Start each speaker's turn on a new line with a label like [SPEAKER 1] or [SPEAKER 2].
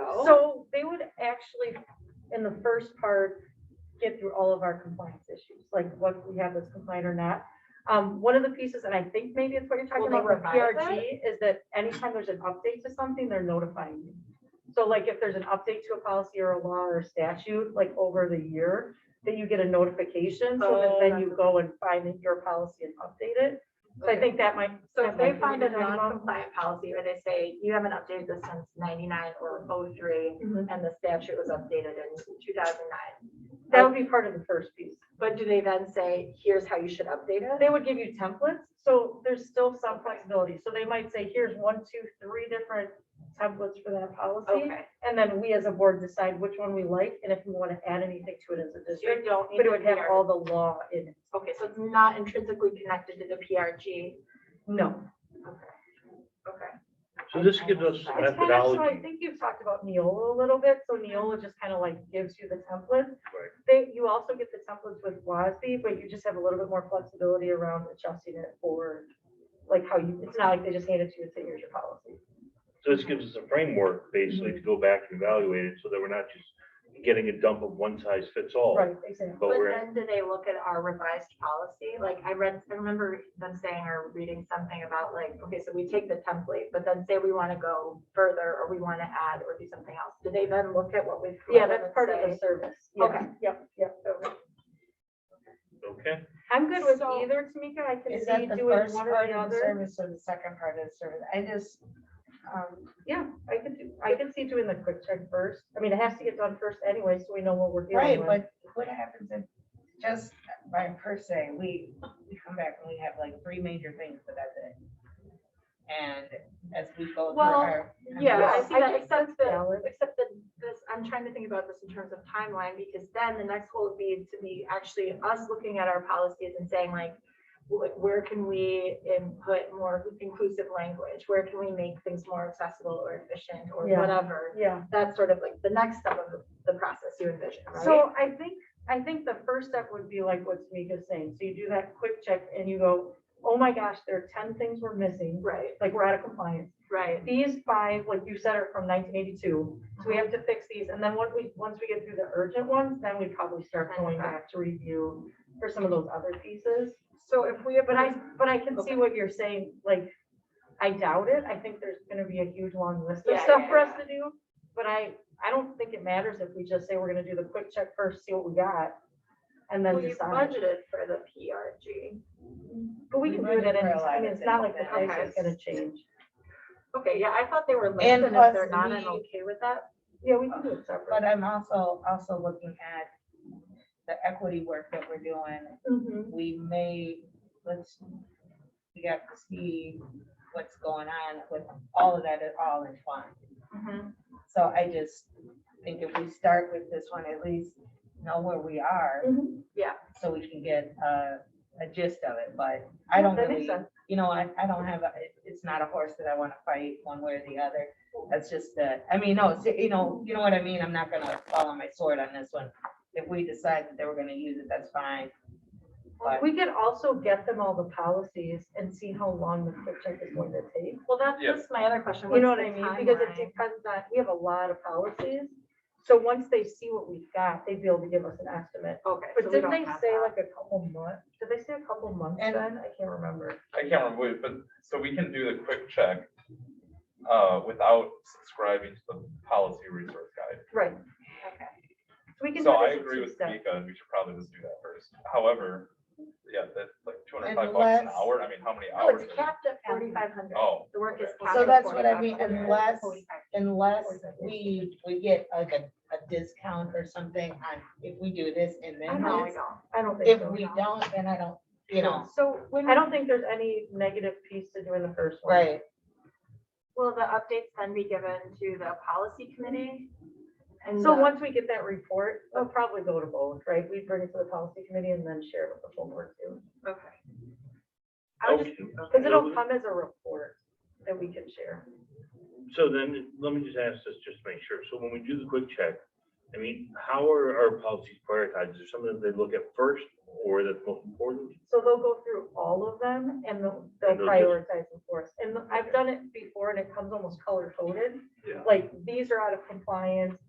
[SPEAKER 1] Oh.
[SPEAKER 2] actually, in the first part, get through all of our compliance issues, like what we have that's compliant or not. Um, one of the pieces, and I think maybe it's what you're talking
[SPEAKER 1] Will they
[SPEAKER 2] about with
[SPEAKER 1] provide that?
[SPEAKER 2] PRG, is that anytime there's an update to something, they're notifying you. So like if there's an update to a policy or a law or statute, like over the year, that you get a notification, so
[SPEAKER 1] Oh,
[SPEAKER 2] that then you
[SPEAKER 1] that's-
[SPEAKER 2] go and find your policy and update it. So I
[SPEAKER 1] Okay.
[SPEAKER 2] think that might.
[SPEAKER 1] So
[SPEAKER 2] that
[SPEAKER 1] if
[SPEAKER 2] might
[SPEAKER 1] they
[SPEAKER 2] be
[SPEAKER 1] find
[SPEAKER 2] what
[SPEAKER 1] a
[SPEAKER 2] you're talking about.
[SPEAKER 1] non-compliant policy or they say you haven't updated this since ninety-nine or 03,
[SPEAKER 2] Mhm.
[SPEAKER 1] and the statute was updated in two thousand nine.
[SPEAKER 2] That would be part of the first piece.
[SPEAKER 1] But do they then say, here's how you should update it?
[SPEAKER 2] They would give you templates, so there's still some flexibility. So they might say, here's one, two, three different templates for that policy.
[SPEAKER 1] Okay.
[SPEAKER 2] And then we as a board decide which one we like and if we want to add anything to it as a
[SPEAKER 1] So you
[SPEAKER 2] district.
[SPEAKER 1] don't need
[SPEAKER 2] But
[SPEAKER 1] to
[SPEAKER 2] it would have
[SPEAKER 1] PR.
[SPEAKER 2] all the law in it.
[SPEAKER 1] Okay, so it's not intrinsically connected to the PRG.
[SPEAKER 2] No.
[SPEAKER 1] Okay.
[SPEAKER 3] So this gives us
[SPEAKER 1] It's kind
[SPEAKER 2] It's kind of, so I
[SPEAKER 3] methodology.
[SPEAKER 2] think you've talked about Neola a little bit, so Neola just kind of like gives you the template.
[SPEAKER 3] Right.
[SPEAKER 2] They, you also get the templates with WASB, but you just have a little bit more flexibility around adjusting it for like how you, it's not like they just hand it to you and say, here's your policy.
[SPEAKER 3] So this gives us a framework basically to go back and evaluate it so that we're not just getting a dump of one size fits all.
[SPEAKER 2] Right, exactly.
[SPEAKER 3] But
[SPEAKER 1] But
[SPEAKER 3] we're,
[SPEAKER 1] then do they look at our revised policy? Like I read, I remember them saying or reading something about like, okay, so we take the template, but then say we want to go further or we want to add or do something else. Do they then look at what we've?
[SPEAKER 2] Yeah, that's part of the service. Yeah.
[SPEAKER 1] Okay.
[SPEAKER 2] Yep, yep.
[SPEAKER 3] okay,
[SPEAKER 2] I'm good with
[SPEAKER 4] So-
[SPEAKER 2] either, Tamika. I can
[SPEAKER 4] Is
[SPEAKER 2] see
[SPEAKER 4] that the
[SPEAKER 2] doing
[SPEAKER 4] first
[SPEAKER 2] one or
[SPEAKER 4] part
[SPEAKER 2] the
[SPEAKER 4] of the
[SPEAKER 2] other.
[SPEAKER 4] service or the second part of the service? I just, um,
[SPEAKER 2] Yeah, I could do, I can see doing the quick check first. I mean, it has to get done first anyway, so we know what we're
[SPEAKER 4] right,
[SPEAKER 2] dealing with.
[SPEAKER 4] but what happens if, just by per se, we, we come back and we have like three major things for that day? And as we go through
[SPEAKER 1] Well,
[SPEAKER 4] our.
[SPEAKER 1] Yeah, I
[SPEAKER 2] Yes,
[SPEAKER 1] see
[SPEAKER 2] I
[SPEAKER 1] that,
[SPEAKER 2] think
[SPEAKER 1] except
[SPEAKER 2] that's
[SPEAKER 1] that,
[SPEAKER 2] valid.
[SPEAKER 1] except that this, I'm trying to think about this in terms of timeline, because then the next goal would be to be actually us looking at our policies and saying like, wh- where can we input more inclusive language? Where can we make things more accessible or efficient or
[SPEAKER 2] Yeah.
[SPEAKER 1] whatever?
[SPEAKER 2] Yeah.
[SPEAKER 1] That's sort of like the next step of the- the process you envision, right?
[SPEAKER 2] So I think, I think the first step would be like what Tamika's saying. So you do that quick check and you go, oh my gosh, there are ten things we're missing,
[SPEAKER 1] Right,
[SPEAKER 2] like we're out of compliance.
[SPEAKER 1] right.
[SPEAKER 2] These five, like you said, are from nineteen eighty-two, so we have to fix these. And then once we, once we get through the urgent ones, then we probably start going back to review for some of those other pieces.
[SPEAKER 1] So if we have,
[SPEAKER 2] But I, but I can see
[SPEAKER 1] Okay.
[SPEAKER 2] what you're saying, like, I doubt it. I think there's gonna be a huge long list of
[SPEAKER 1] Yeah,
[SPEAKER 2] stuff
[SPEAKER 1] yeah,
[SPEAKER 2] for us to do. But I, I don't think it matters if we just say we're gonna do the quick check first, see what we got. And
[SPEAKER 1] Well,
[SPEAKER 2] then
[SPEAKER 1] you
[SPEAKER 2] decide.
[SPEAKER 1] budgeted for the PRG.
[SPEAKER 2] But we
[SPEAKER 4] we
[SPEAKER 2] can do it at
[SPEAKER 4] budget
[SPEAKER 2] any
[SPEAKER 4] for a lot
[SPEAKER 2] time.
[SPEAKER 4] of
[SPEAKER 2] It's not like the
[SPEAKER 4] things.
[SPEAKER 2] price
[SPEAKER 1] Okay.
[SPEAKER 2] is gonna change.
[SPEAKER 1] Okay, yeah, I thought they were linked,
[SPEAKER 4] And
[SPEAKER 1] and if they're
[SPEAKER 4] plus
[SPEAKER 1] not, I'm
[SPEAKER 4] we-
[SPEAKER 1] okay with that.
[SPEAKER 2] Yeah, we can do it
[SPEAKER 4] But
[SPEAKER 2] separate.
[SPEAKER 4] I'm also, also looking at the equity work that we're doing
[SPEAKER 2] Mhm.
[SPEAKER 4] we may, let's, we have to see what's going on with all of that at all in fun.
[SPEAKER 2] Mm-hmm.
[SPEAKER 4] So I just think if we start with this one, at least know where we are.
[SPEAKER 2] Mhm.
[SPEAKER 1] Yeah.
[SPEAKER 4] So we can get a, a gist of it, but I don't
[SPEAKER 2] That makes
[SPEAKER 4] really,
[SPEAKER 2] sense.
[SPEAKER 4] you know, I, I don't have, a it- it's not a horse that I want to fight one way or the other. That's just the, I mean, no, it's- you know, you know what I mean? I'm not gonna fall on my sword on this one. If we decide that they were gonna use it, that's fine. But-
[SPEAKER 2] We could also get them all the policies and see how long the quick check is going to take.
[SPEAKER 1] Well, that's
[SPEAKER 3] Yeah.
[SPEAKER 1] just my other question.
[SPEAKER 2] You know what
[SPEAKER 1] What's
[SPEAKER 2] I
[SPEAKER 1] the
[SPEAKER 2] mean? Because it
[SPEAKER 1] timeline?
[SPEAKER 2] depends on, we have a lot of policies. So once they see what we've got, they'd be able to give us an estimate.
[SPEAKER 1] Okay. so
[SPEAKER 2] But
[SPEAKER 1] we
[SPEAKER 2] didn't
[SPEAKER 1] don't
[SPEAKER 2] they
[SPEAKER 1] have
[SPEAKER 2] say
[SPEAKER 1] that.
[SPEAKER 2] like a couple months? Did they say a couple months then?
[SPEAKER 4] And-
[SPEAKER 2] I can't remember.
[SPEAKER 5] I can't remember, what- but, so we can do the quick check uh, without subscribing to the policy resource guide.
[SPEAKER 2] Right.
[SPEAKER 1] Okay.
[SPEAKER 2] So we can.
[SPEAKER 5] So
[SPEAKER 2] do
[SPEAKER 5] I
[SPEAKER 2] this in
[SPEAKER 5] agree
[SPEAKER 2] two
[SPEAKER 5] with
[SPEAKER 2] steps.
[SPEAKER 5] Mika, and we should probably just do that first. However, yeah, that's like two hundred five bucks an
[SPEAKER 4] Unless-
[SPEAKER 5] hour, I mean, how many
[SPEAKER 1] No,
[SPEAKER 5] hours?
[SPEAKER 1] it's capped at forty-five hundred.
[SPEAKER 5] Oh,
[SPEAKER 1] The work is.
[SPEAKER 5] okay.
[SPEAKER 1] capped
[SPEAKER 4] So
[SPEAKER 1] at
[SPEAKER 4] that's what I mean,
[SPEAKER 1] 4,500.
[SPEAKER 4] unless-
[SPEAKER 1] 4,500.
[SPEAKER 4] unless we, we get like a, a discount or something on, if we do this and
[SPEAKER 1] I
[SPEAKER 4] then
[SPEAKER 1] know, I
[SPEAKER 4] this.
[SPEAKER 1] know.
[SPEAKER 2] I don't think
[SPEAKER 4] If
[SPEAKER 2] so.
[SPEAKER 4] we don't, then I don't, you know,
[SPEAKER 2] So
[SPEAKER 1] when-
[SPEAKER 2] I don't think there's any negative piece to doing the first one.
[SPEAKER 4] right,
[SPEAKER 1] Will the updates then be given to the policy committee? And
[SPEAKER 2] So
[SPEAKER 1] the-
[SPEAKER 2] once we get that report, they'll probably go to both, right? We bring it to the policy committee and then share it with the full board too.
[SPEAKER 1] Okay. I would just,
[SPEAKER 3] Okay.
[SPEAKER 1] okay.
[SPEAKER 2] Because it'll come as a report that we can share.
[SPEAKER 3] so then, let me just ask this, just to make sure. So when we do the quick check, I mean, how are our policies prioritized? Is there something that they look at first or that's most important?
[SPEAKER 2] So they'll go through all of them and they'll, they'll
[SPEAKER 3] And they'll just-
[SPEAKER 2] prioritize them for us. And I've done it before and it comes almost color coded.
[SPEAKER 3] Yeah.
[SPEAKER 2] Like, these are out of compliance,